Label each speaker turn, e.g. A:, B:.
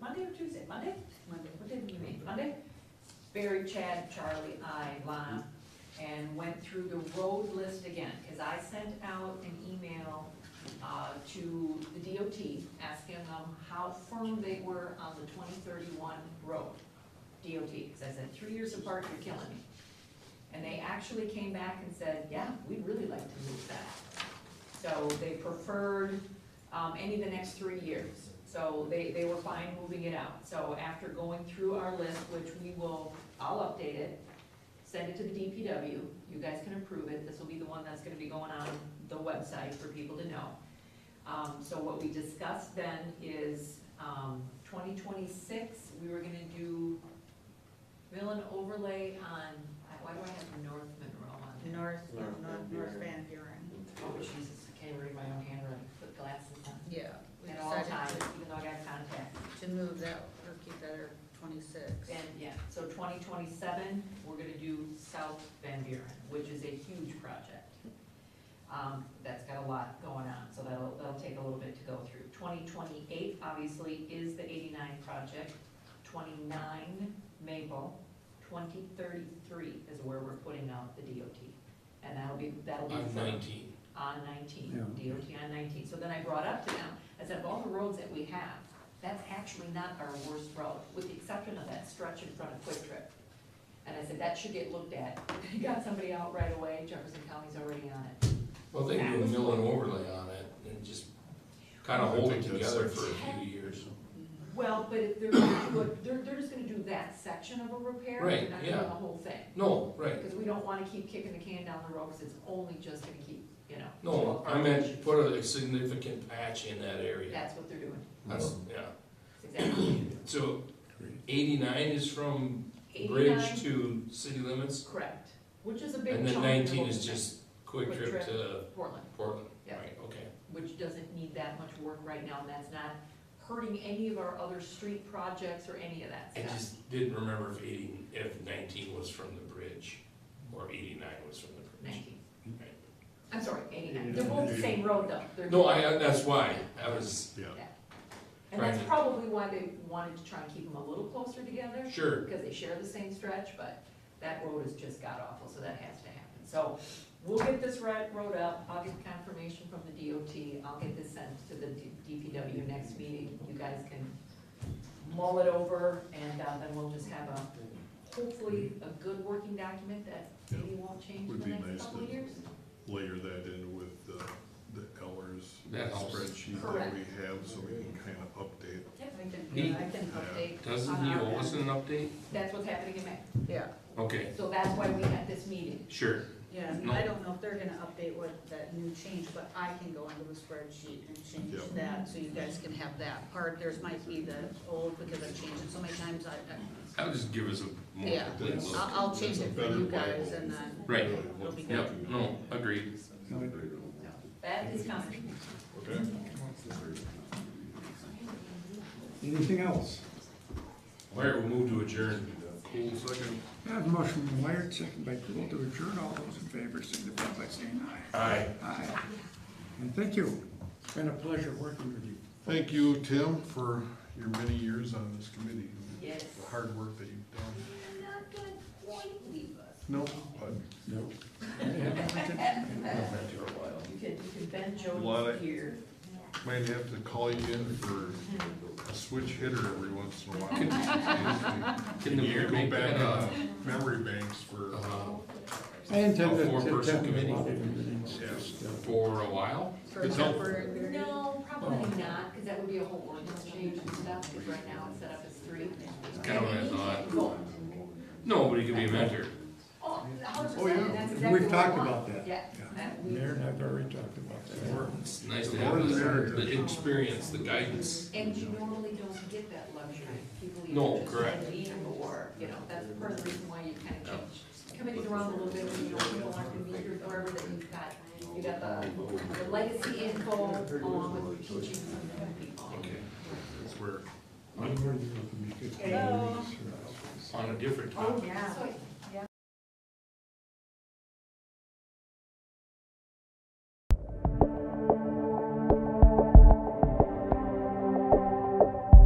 A: Monday or Tuesday? Monday? Monday, what did we meet?
B: Mhm.
A: Monday? Barry, Chad, Charlie, I, Lon, and went through the road list again, because I sent out an email uh, to the DOT asking them how firm they were on the twenty thirty-one road, DOT, because I said, three years apart, you're killing me. And they actually came back and said, yeah, we'd really like to move that. So they preferred um, any of the next three years. So they, they were fine moving it out. So after going through our list, which we will, I'll update it, send it to the DPW, you guys can approve it, this will be the one that's gonna be going on the website for people to know. Um, so what we discussed then is, um, twenty twenty-six, we were gonna do mill and overlay on, I- why do I have North Monroe on there?
B: North,
C: North
B: North,
C: Van
B: North
C: Buren.
B: Van Buren.
A: Oh Jesus, I can't read my own handwriting, put glasses on.
D: Yeah. we
A: At all
D: decided
A: times, even though I got contacts.
D: To move that, or keep that at twenty-six.
A: And, yeah, so twenty twenty-seven, we're gonna do South Van Buren, which is a huge project. Um, that's got a lot going on, so that'll, that'll take a little bit to go through. Twenty twenty-eight, obviously, is the eighty-nine project, twenty-nine Maple, twenty thirty-three is where we're putting out the DOT. And that'll be, that'll be.
E: I'm
A: for-
E: nineteen.
A: on nineteen, DOT on nineteen. So then I brought up to them, I said, of all the roads that we have, that's actually not our worst road, with the exception of that stretch in front of Quick Trip. And I said, that should get looked at. They Got somebody out right away, Jefferson County's already on it.
E: Well, they do a mill and overlay on it and just kind
C: I
E: of hold it
C: think that's
E: together
C: like-
E: for a few years.
A: Well, but if they're, gonna do it- they're, they're just gonna do that section of a repair, they're
E: Right,
A: not doing the
E: yeah.
A: whole thing.
E: No, right,
A: Because we don't wanna keep kicking the can down the road, because it's only just gonna keep, you know.
E: no, I
A: our-
E: meant put a significant patch in that area.
A: That's what they're doing,
E: That's,
C: Oh.
E: yeah,
A: exactly. what they're doing.
E: so eighty-nine is from
A: Eighty-nine
E: bridge to city limits?
A: Correct, which is a big
E: And
A: chunk.
E: then
A: of
E: nineteen
A: what we
E: is
A: spend.
E: just quick
A: Quick
E: trip
A: trip.
E: to
A: Portland,
E: Portland,
A: Yeah.
E: right, okay.
A: which doesn't need that much work right now, and that's not hurting any of our other street projects or any of that
E: I
A: stuff.
E: just didn't remember if eighty, if nineteen was from the bridge, or eighty-nine was from the bridge.
A: Nineteen,
E: Right.
A: I'm sorry, eighty-nine, they're both the same road though. They're-
E: No, I, that's why, I was,
A: And that's probably why they wanted to try and keep them a little closer together,
E: sure,
A: because they share the same stretch, but that road has just got awful, so that has to happen. So we'll get this ri- road up, I'll get confirmation from the DOT, I'll get this sent to the D- DPW next meeting. You guys can mull it over, and uh, then we'll just have a, hopefully, a good working document that maybe won't change in
C: Would
A: the
C: be
A: next
C: nice
A: couple of
C: to-
A: years.
C: Layer that in with the, the hours
E: That helps.
C: spreadsheet that
A: Correct.
C: we have, so we can kind of update.
D: I can,
E: He-
D: I can update.
E: doesn't
D: on
E: he
B: Uh-huh.
D: our
E: owe
D: end.
E: us an update?
A: That's what's happening in May,
D: Yeah,
E: Okay,
A: so that's why we had this meeting.
E: sure,
B: Yeah, and I don't know if they're gonna update what that new change, but I can go into the spreadsheet and change
C: Yep.
B: that, so you guys can have that part. There's might be the old, because I've changed it so many times, I, I-
E: that'll just give us a more
B: Yeah.
E: complete
C: That's-
E: look.
B: I'll, I'll change
C: that's a
B: it for
C: better
B: you
C: way
B: guys
C: of-
B: and then.
E: Right.
B: It'll be good.
E: Yep, no, agreed.
A: That is coming.
C: Okay,
F: Anything else?
E: Alright, we'll move to adjourn.
F: I have a motion from Wired, second by Poole to adjourn. All those in favor signify by saying aye.
E: Aye.
F: Aye. And thank you. It's been a pleasure working with you.
C: thank you, Tim, for your many years on this committee.
A: Yes.
C: The hard work that you've done.
A: You're not gonna quite leave us.
C: No, but
F: No.
A: You could, you could bend
C: Lot of-
A: Jody's ear.
C: might have to call you in for a switch hitter every once in a while.
E: Can the
C: You
E: mayor
C: go
E: make
C: back
E: that uh, a,
C: in Memory banks for,
E: uh,
F: I intend
E: A
F: to
E: four-person
F: attend
E: committee?
F: a lot of meetings.
C: Yes.
E: for a while?
B: For
C: It's helpful.
B: temporary.
A: No, probably not, because that would be a whole ordinance change and stuff, because right now it's set up as three.
E: That's kinda what I thought.
A: Cool.
E: No, but he could be a mentor.
A: Oh, a hundred
C: Oh, yeah.
A: percent, that's exactly
F: We've
A: what I
F: talked
A: want.
F: about that.
A: Yeah.
F: Yeah.
A: that we-
F: Mayor and I've already talked about that.
E: It's nice to
C: The more
E: have
C: the
E: the,
C: merrier.
E: the experience, the guidance.
A: And you normally don't get that luxury, people
E: No,
A: either
E: correct.
A: just leave or, you know, that's part of the reason why you kind of change committees around a little bit, when you know people aren't gonna be here forever, that you've got, you got the the legacy info along with teaching some new people.
E: Okay,
C: that's where
F: I'm learning how to make good
B: Hello.
F: meetings.
E: on a different
A: Oh,
E: topic.
B: Yeah.
A: So I